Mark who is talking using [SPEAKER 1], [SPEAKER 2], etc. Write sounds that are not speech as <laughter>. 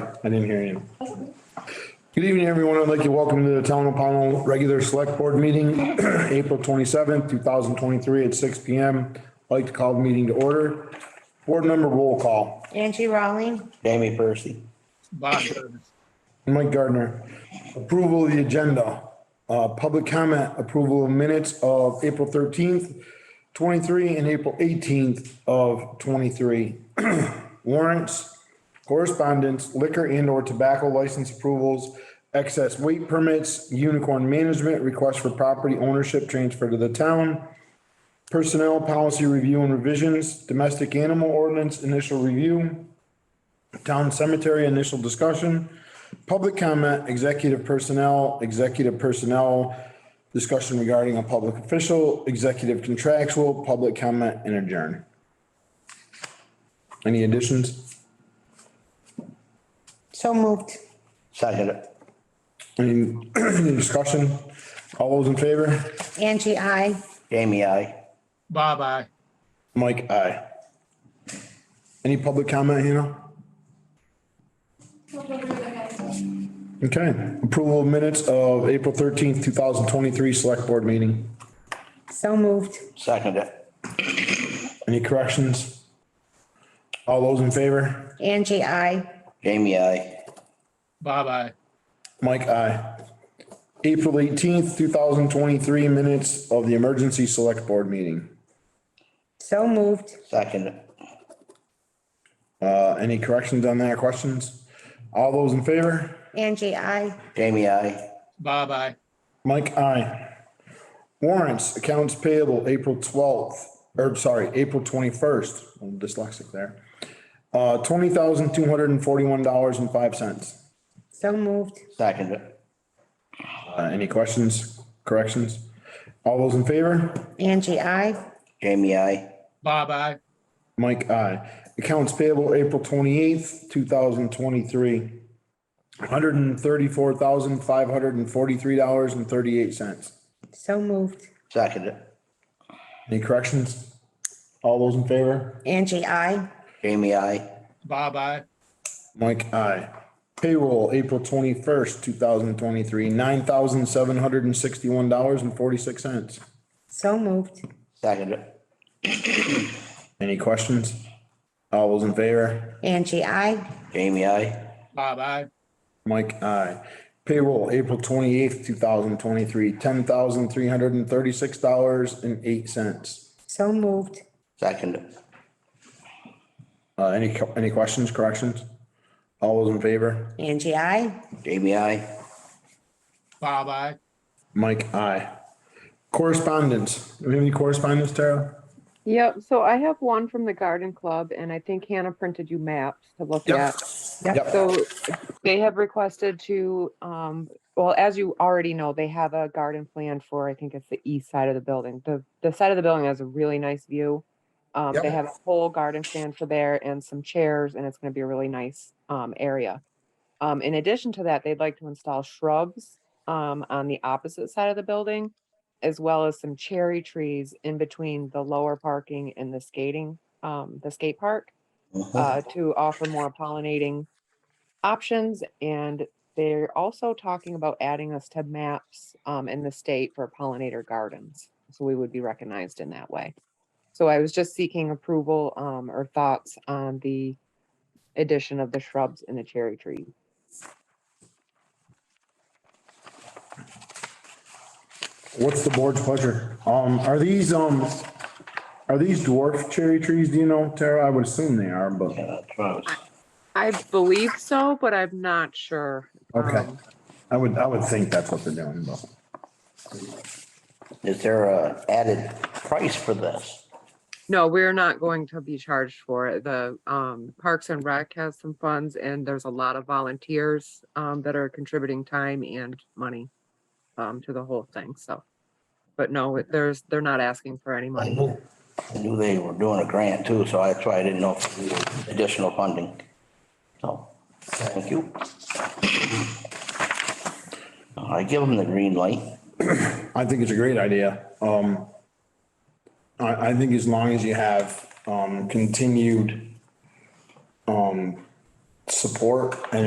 [SPEAKER 1] I didn't hear you. Good evening, everyone. I'd like to welcome to the Town of Pownell Regular Select Board Meeting, <clears throat> April twenty-seventh, two thousand twenty-three at six P M. I'd like to call the meeting to order. Board member roll call.
[SPEAKER 2] Angie Rawling,
[SPEAKER 3] Jamie Percy.
[SPEAKER 4] Bob Burns.
[SPEAKER 1] Mike Gardner. Approval of the agenda. Uh, public comment, approval of minutes of April thirteenth, twenty-three and April eighteenth of twenty-three. <clears throat> Warrants, correspondence, liquor and or tobacco license approvals, excess weight permits, unicorn management, request for property ownership transfer to the town, personnel policy review and revisions, domestic animal ordinance initial review, town cemetery initial discussion, public comment, executive personnel, executive personnel, discussion regarding a public official, executive contractual, public comment, and adjourn. Any additions?
[SPEAKER 2] so moved.
[SPEAKER 3] Second it.
[SPEAKER 1] Any <clears throat> any discussion? All those in favor?
[SPEAKER 2] Angie, I.
[SPEAKER 3] Jamie, I.
[SPEAKER 4] Bob, I.
[SPEAKER 1] Mike, aye. Any public comment, Hannah? Okay, approval of minutes of April thirteenth, two thousand twenty-three select board meeting.
[SPEAKER 2] so moved.
[SPEAKER 3] Second it.
[SPEAKER 1] Any corrections? All those in favor?
[SPEAKER 2] Angie, I.
[SPEAKER 3] Jamie, I.
[SPEAKER 4] Bob, I.
[SPEAKER 1] Mike, aye. April eighteenth, two thousand twenty-three minutes of the emergency select board meeting.
[SPEAKER 2] so moved.
[SPEAKER 3] Second it.
[SPEAKER 1] Uh, any corrections on that, questions? All those in favor?
[SPEAKER 2] Angie, I.
[SPEAKER 3] Jamie, I.
[SPEAKER 4] Bob, I.
[SPEAKER 1] Mike, aye. Warrants, accounts payable, April twelfth, or sorry, April twenty-first, I'm dyslexic there. Uh, twenty thousand two hundred and forty-one dollars and five cents.
[SPEAKER 2] so moved.
[SPEAKER 3] Second it.
[SPEAKER 1] Uh, any questions, corrections? All those in favor?
[SPEAKER 2] Angie, I.
[SPEAKER 3] Jamie, I.
[SPEAKER 4] Bob, I.
[SPEAKER 1] Mike, aye. Accounts payable, April twenty-eighth, two thousand twenty-three. One hundred and thirty-four thousand five hundred and forty-three dollars and thirty-eight cents.
[SPEAKER 2] so moved.
[SPEAKER 3] Second it.
[SPEAKER 1] Any corrections? All those in favor?
[SPEAKER 2] Angie, I.
[SPEAKER 3] Jamie, I.
[SPEAKER 4] Bob, I.
[SPEAKER 1] Mike, aye. Payroll, April twenty-first, two thousand twenty-three, nine thousand seven hundred and sixty-one dollars and forty-six cents.
[SPEAKER 2] so moved.
[SPEAKER 3] Second it.
[SPEAKER 1] Any questions? All those in favor?
[SPEAKER 2] Angie, I.
[SPEAKER 3] Jamie, I.
[SPEAKER 4] Bob, I.
[SPEAKER 1] Mike, aye. Payroll, April twenty-eighth, two thousand twenty-three, ten thousand three hundred and thirty-six dollars and eight cents.
[SPEAKER 2] so moved.
[SPEAKER 3] Second it.
[SPEAKER 1] Uh, any, co- any questions, corrections? All those in favor?
[SPEAKER 2] Angie, I.
[SPEAKER 3] Jamie, I.
[SPEAKER 4] Bob, I.
[SPEAKER 1] Mike, aye. Correspondence. Do we have any correspondence, Tara?
[SPEAKER 5] Yep, so I have one from the garden club and I think Hannah printed you maps to look
[SPEAKER 1] Yep.
[SPEAKER 5] at.
[SPEAKER 1] Yep,
[SPEAKER 5] So they have requested to, um, well, as you already know, they have a garden plan for, I think it's the east side of the building. The, the side of the building has a really nice view. Um,
[SPEAKER 1] Yep.
[SPEAKER 5] they have a whole garden plan for there and some chairs and it's gonna be a really nice, um, area. Um, in addition to that, they'd like to install shrubs, um, on the opposite side of the building, as well as some cherry trees in between the lower parking and the skating, um, the skate park
[SPEAKER 3] Mhm.
[SPEAKER 5] uh, to offer more pollinating options. And they're also talking about adding us to maps um, in the state for pollinator gardens. So we would be recognized in that way. So I was just seeking approval um, or thoughts on the addition of the shrubs and the cherry tree.
[SPEAKER 1] What's the board's pleasure? Um, are these, um, are these dwarf cherry trees? Do you know, Tara? I would assume they are, but,
[SPEAKER 3] Yeah, that's what I was-
[SPEAKER 5] I believe so, but I'm not sure. um,
[SPEAKER 1] okay. I would, I would think that's what they're doing, but.
[SPEAKER 3] Is there a added price for this?
[SPEAKER 5] No, we're not going to be charged for it. The um Parks and Rec has some funds and there's a lot of volunteers um that are contributing time and money um to the whole thing, so. But no, it- there's, they're not asking for any
[SPEAKER 3] I
[SPEAKER 5] money.
[SPEAKER 3] knew I knew they were doing a grant too, so that's why I didn't know if it was additional funding. So, thank you. I give them the green light.
[SPEAKER 1] I think it's a great idea. Um, I, I think as long as you have, um, continued, um, support and